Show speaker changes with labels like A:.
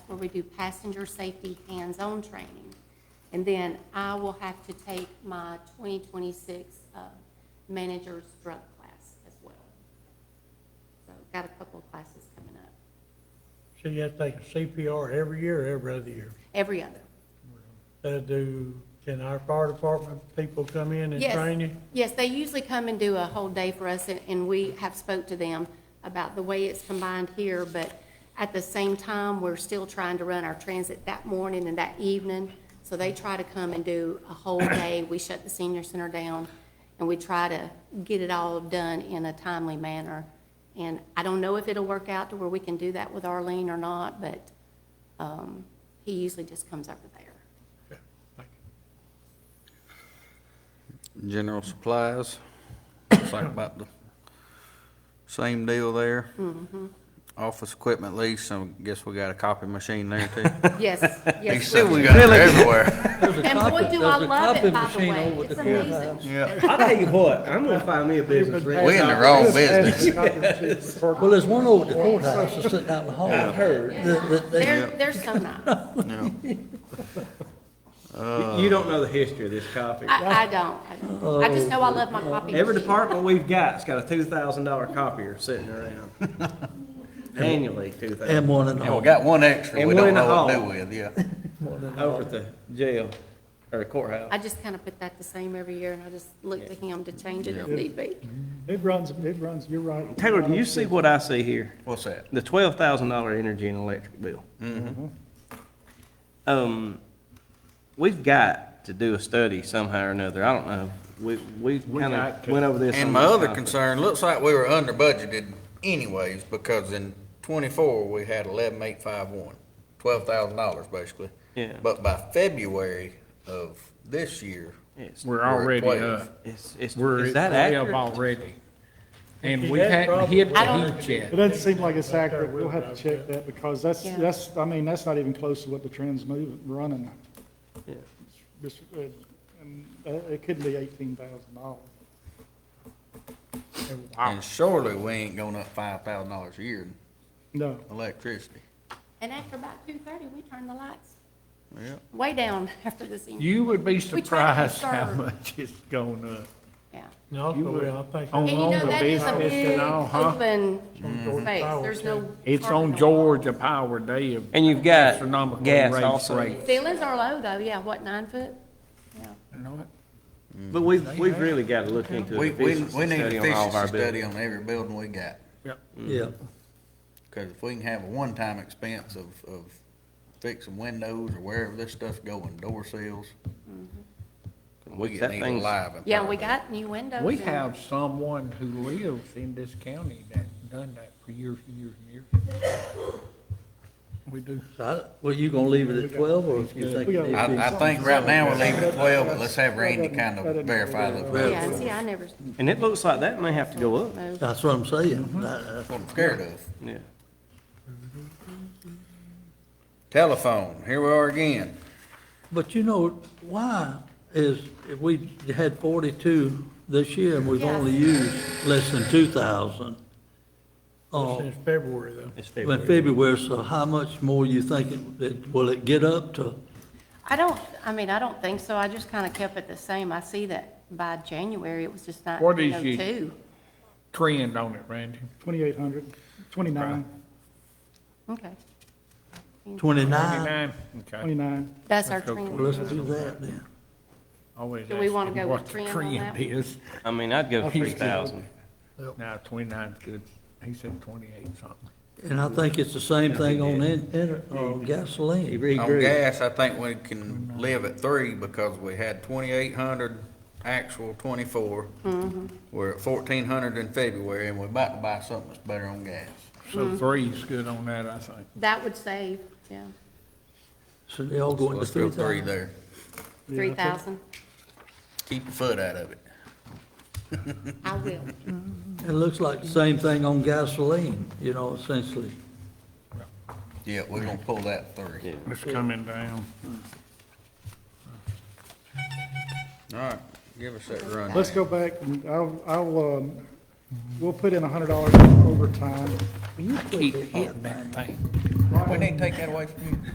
A: where we do passenger safety hands-on training. And then I will have to take my 2026 uh, manager's drug class as well. So got a couple of classes coming up,
B: So you have to take a CPR every year, or every other year.
A: every other.
B: Uh, do, can our fire department people come in and
A: Yes.
B: train you?
A: Yes, they usually come and do a whole day for us, and, and we have spoke to them about the way it's combined here, but at the same time, we're still trying to run our transit that morning and that evening, so they try to come and do a whole day. We shut the senior center down, and we try to get it all done in a timely manner. And I don't know if it'll work out to where we can do that with Arlene or not, but, um, he usually just comes over there.
B: Okay, thank you.
C: General supplies, it's like about the same deal there. Mm-hmm. Office equipment lease, I guess we got a copy machine there too.
A: Yes,
C: He
A: yes.
C: said we got it everywhere.
A: And boy, do I love it, by the
D: machine
A: way.
D: on with
A: It's
D: the copy.
A: amazing.
C: Yeah,
D: I'll tell you what, I'm gonna find me a business, Rick.
C: we in the wrong business.
E: Well, there's one over at the courthouse that's sitting out in the hall.
D: I've heard.
E: The- the-
A: They're, they're so nice.
D: You- You don't know the history of this copy.
A: I, I don't, I don't. I just know I love my coffee.
D: Every
A: machine.
D: department we've got's got a two thousand dollar copier sitting around. Annually, two
E: And
D: thousand,
E: one in the
C: And we
E: hall.
C: got one extra
D: And
C: we
D: one
C: don't
D: in the
C: know what to do
D: hall.
C: with, yeah.
D: over at the jail, or the courthouse.
A: I just kind of put that the same every year and I just look to him to change it if
C: Yeah.
A: need be.
F: It runs, it runs, you're right.
D: Taylor, do you see what I see here?
C: What's that?
D: The twelve thousand dollar energy and electric bill.
C: Mm-hmm.
D: Um, we've got to do a study somehow or another, I don't know, we, we kinda
F: got to.
D: went over this.
C: And
D: on
C: my
D: this
C: other
D: topic.
C: concern, looks like we were under budgeted anyways, because in twenty-four, we had eleven eight five one, twelve thousand dollars basically.
D: Yeah.
C: But by February of this year,
D: It's,
G: We're
C: at
G: already
C: 12.
G: up.
D: it's, it's,
G: We're
D: is that
G: at 12
D: accurate?
G: already. And
B: If
G: we
B: you had
G: hadn't hit
A: I don't-
G: the heat
F: It
G: yet.
F: doesn't seem like it's accurate. We'll have to check that because that's,
A: Yeah.
F: that's, I mean, that's not even close to what the trend's moving, running.
D: Yeah.
F: This, uh, And uh, it could be eighteen thousand dollars.
C: and surely we ain't going up five thousand dollars a year in
F: No,
C: electricity.
A: And after about two thirty, we turn the lights
C: Yeah.
A: way down after the senior.
G: You would
A: try
G: be
A: to
G: surprised how
A: conserve.
G: much it's going up.
A: Yeah.
B: And also, I think,
G: On
A: And you know,
G: longer
A: that is a
G: business
A: big
G: and all, huh?
A: open space. There's no.
G: It's
A: parking
G: on
A: lot.
G: Georgia Power Day of
D: And you've got
G: astronomical
D: gas
G: rates
D: also.
G: rate.
A: Ceilings are low though, yeah, what, nine foot? Yeah.
D: But we've, we've really got to look into
C: We,
D: an
C: we,
D: efficiency
C: we need
D: study on all of
C: efficiency
D: our
C: study
D: buildings.
C: on every building we got,
E: Yeah.
C: cause if we can have a one-time expense of, of fixing windows or wherever this stuff's going, door seals, we
D: Mm-hmm. That
C: get
D: thing's-
C: alive. in
A: Yeah,
C: front
A: we
C: of it.
A: got new windows.
G: We
A: and-
G: have someone who lives in this county that's done that for years and years and years. We do.
E: So I- Well, you gonna leave it at twelve or you think?
F: We
E: it
F: got-
E: needs to
C: I,
E: be-
C: I think right now we're leaving at twelve, but let's have Randy kind
F: That
C: of
F: doesn't-
C: verify those.
A: Yeah, and see, I never.
D: And it looks like that may have to go up,
A: moved.
E: That's what I'm saying. uh, I- I-
C: That's what I'm scared of.
D: yeah.
C: Telephone, here we are again.
E: But you know, why is, if we had forty-two this year and we've
A: Yeah.
E: only used less than two thousand? uh,
B: since February though.
D: It's
E: When
D: February.
E: February, so how much more you think it- it, will it get up to?
A: I don't, I mean, I don't think so. I just kind of kept it the same. I see that by January, it was just
G: What is your-
A: 1902.
G: Trend on it, Randy.
F: twenty-eight hundred, twenty-nine,
A: Okay, Uh,
E: Twenty-nine?
G: Twenty-nine, okay.
F: twenty-nine.
A: that's our
G: That's okay.
A: trend.
E: Well, let's do that then.
G: Always
A: Do we wanna
G: asking
A: go
G: what
A: with
G: the
A: trend on that
G: trend
A: one?
G: is.
D: I mean, I'd go
F: I'll fix
D: two
F: it.
D: thousand.
G: No, twenty-nine's good. He said twenty-eight something.
E: And I think it's the same thing on in, in, uh,
D: He
E: gasoline.
D: re-
C: On
D: grew.
C: gas, I think we can live at three because we had twenty-eight hundred actual twenty-four. We're at fourteen hundred in February and we're about to buy something that's better on gas.
A: Mm-hmm.
G: So three's good on that, I think.
A: That would save, yeah,
E: So they all
C: So
E: going to
C: Let's
E: three
C: go three
E: thousand.
C: there.
F: Yeah, I
A: 3,000.
C: Keep your foot out of it.
A: I will.
E: It looks like the same thing on gasoline, you know, essentially.
C: Yeah, we're gonna pull that three.
G: It's coming down.
C: All right, give us that run.
F: Let's go back and I'll, I'll, um, we'll put in a hundred dollars overtime.
G: You keep hitting that thing.
C: We need to take that away from you.